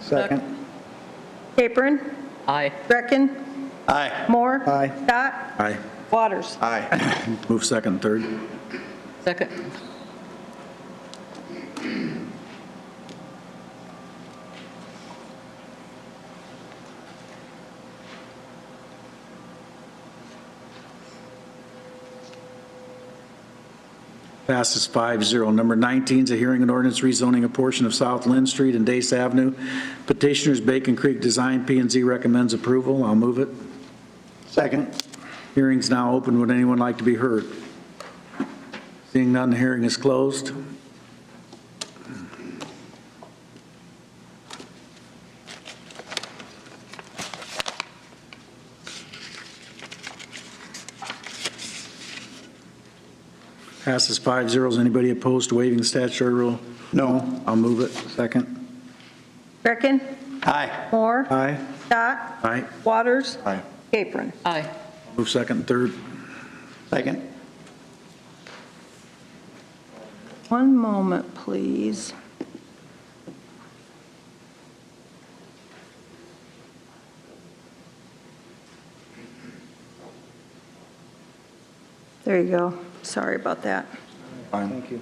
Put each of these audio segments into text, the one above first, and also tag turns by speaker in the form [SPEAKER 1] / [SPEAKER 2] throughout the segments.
[SPEAKER 1] Second.
[SPEAKER 2] Capron.
[SPEAKER 3] Aye.
[SPEAKER 2] Greckin.
[SPEAKER 4] Aye.
[SPEAKER 2] Moore.
[SPEAKER 1] Aye.
[SPEAKER 2] Scott.
[SPEAKER 4] Aye.
[SPEAKER 2] Waters.
[SPEAKER 4] Aye. Move second, third.
[SPEAKER 3] Second.
[SPEAKER 4] Passes 5-0. Number 19 is a hearing and ordinance rezoning a portion of South Lynn Street and Dace Avenue. Petitioners Bacon Creek Design p and Z recommends approval. I'll move it.
[SPEAKER 1] Second.
[SPEAKER 4] Hearing's now open. Would anyone like to be heard? Seeing none, the hearing is closed. Passes five zeros. Anybody opposed to waiving the statutory rule?
[SPEAKER 1] No.
[SPEAKER 4] I'll move it. Second.
[SPEAKER 2] Greckin.
[SPEAKER 1] Aye.
[SPEAKER 2] Moore.
[SPEAKER 4] Aye.
[SPEAKER 2] Scott.
[SPEAKER 4] Aye.
[SPEAKER 2] Waters.
[SPEAKER 1] Aye.
[SPEAKER 2] Capron.
[SPEAKER 3] Aye.
[SPEAKER 4] Move second and third.
[SPEAKER 1] Second.
[SPEAKER 2] One moment, please. There you go. Sorry about that.
[SPEAKER 1] Fine. Thank you.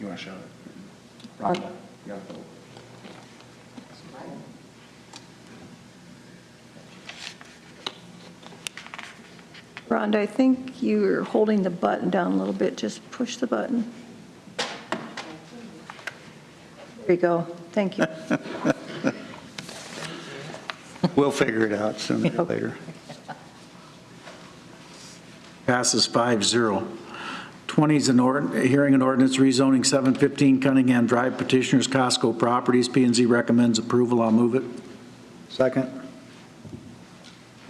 [SPEAKER 1] You want to show it? Rhonda, you gotta vote.
[SPEAKER 2] Rhonda, I think you're holding the button down a little bit. Just push the button. There you go. Thank you.
[SPEAKER 1] We'll figure it out sooner or later.
[SPEAKER 4] Passes 5-0. 20 is an ord, hearing an ordinance rezoning 715 Cunningham Drive petitioners Costco Properties. p and Z recommends approval. I'll move it.
[SPEAKER 1] Second.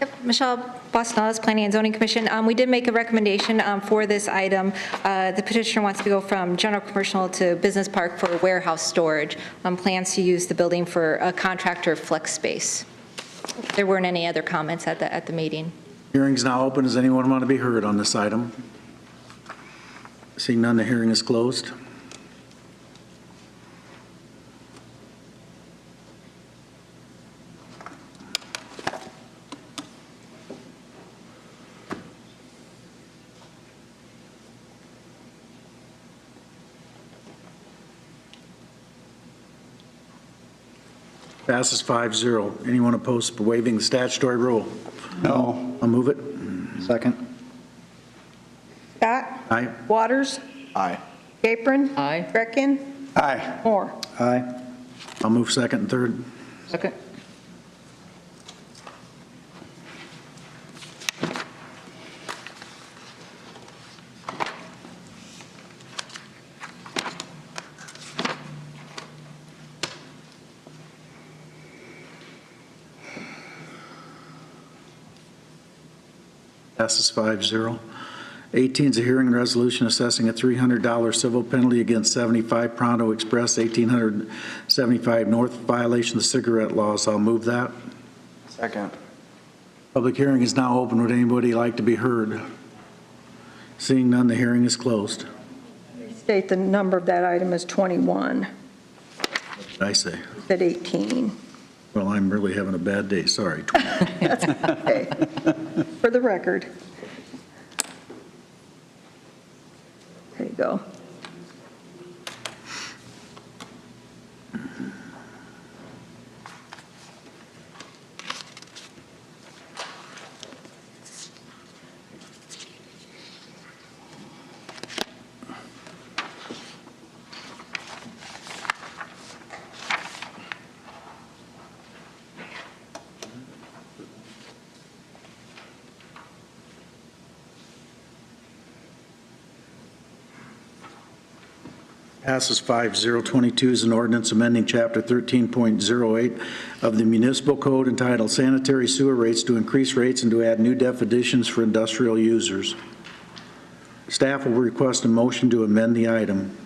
[SPEAKER 5] Yep, Michelle Bostanalis, Planning and Zoning Commission. Um, We did make a recommendation um, for this item. Uh, The petitioner wants to go from general commercial to business park for warehouse storage, Um, plans to use the building for a contractor flex space. There weren't any other comments at the, at the meeting.
[SPEAKER 4] Hearing's now open. Does anyone want to be heard on this item? Seeing none, the hearing is closed. Passes 5-0. Anyone opposed to waiving the statutory rule?
[SPEAKER 1] No.
[SPEAKER 4] I'll move it.
[SPEAKER 1] Second.
[SPEAKER 2] Scott.
[SPEAKER 4] Aye.
[SPEAKER 2] Waters.
[SPEAKER 1] Aye.
[SPEAKER 2] Apron.
[SPEAKER 3] Aye.
[SPEAKER 2] Greckin.
[SPEAKER 1] Aye.
[SPEAKER 2] Moore.
[SPEAKER 1] Aye.
[SPEAKER 4] I'll move second and third.
[SPEAKER 3] Second.
[SPEAKER 4] Passes 5-0. 18 is a hearing and resolution assessing a $300 civil penalty against 75 Pronto Express, 1875 North violation of cigarette laws. I'll move that.
[SPEAKER 1] Second.
[SPEAKER 4] Public hearing is now open. Would anybody like to be heard? Seeing none, the hearing is closed.
[SPEAKER 2] State the number of that item is 21,
[SPEAKER 4] What did I say?
[SPEAKER 2] at 18.
[SPEAKER 4] Well, I'm really having a bad day, sorry.
[SPEAKER 2] Okay. For the record. There you go.
[SPEAKER 4] Passes 5022 is an ordinance amending Chapter 13.08 of the municipal code entitled sanitary sewer rates to increase rates and to add new definitions for industrial users. Staff will request a motion to amend the item.